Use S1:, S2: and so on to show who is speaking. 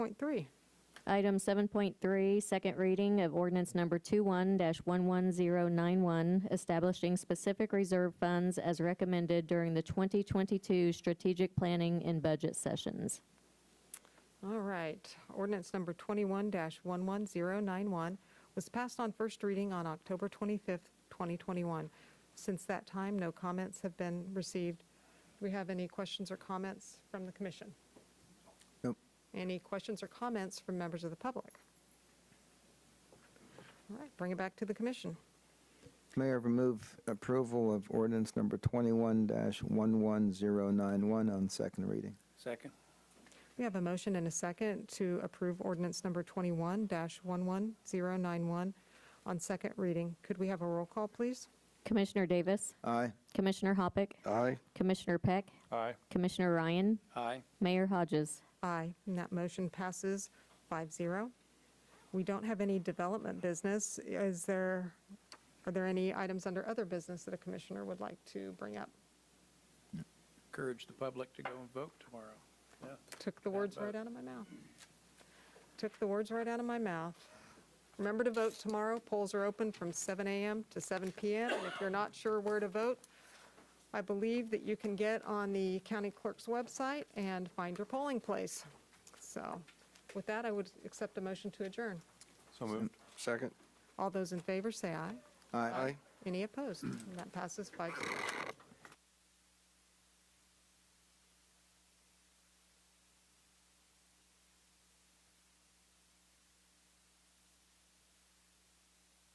S1: Point three.
S2: Item 7.3, second reading of ordinance number 21-11091, establishing specific reserve funds as recommended during the 2022 strategic planning and budget sessions.
S1: All right. Ordinance number 21-11091 was passed on first reading on October 25th, 2021. Since that time, no comments have been received. Do we have any questions or comments from the commission?
S3: Nope.
S1: Any questions or comments from members of the public? All right, bring it back to the commission.
S3: Mayor, remove approval of ordinance number 21-11091 on second reading.
S4: Second.
S1: We have a motion and a second to approve ordinance number 21-11091 on second reading. Could we have a roll call, please?
S2: Commissioner Davis,
S3: Aye.
S2: Commissioner Hoppick,
S3: Aye.
S2: Commissioner Peck,
S4: Aye.
S2: Commissioner Ryan,
S4: Aye.
S2: Mayor Hodges.
S1: Aye, and that motion passes 5-0. We don't have any development business. Is there, are there any items under other business that a commissioner would like to bring up?
S4: Encourage the public to go and vote tomorrow. Yeah.
S1: Took the words right out of my mouth. Took the words right out of my mouth. Remember to vote tomorrow. Polls are open from 7 a.m. to 7 p.m. And if you're not sure where to vote, I believe that you can get on the county clerk's website and find your polling place. So with that, I would accept a motion to adjourn.
S5: So moved. Second.
S1: All those in favor, say aye.
S3: Aye.
S1: Any opposed? And that passes 5-0.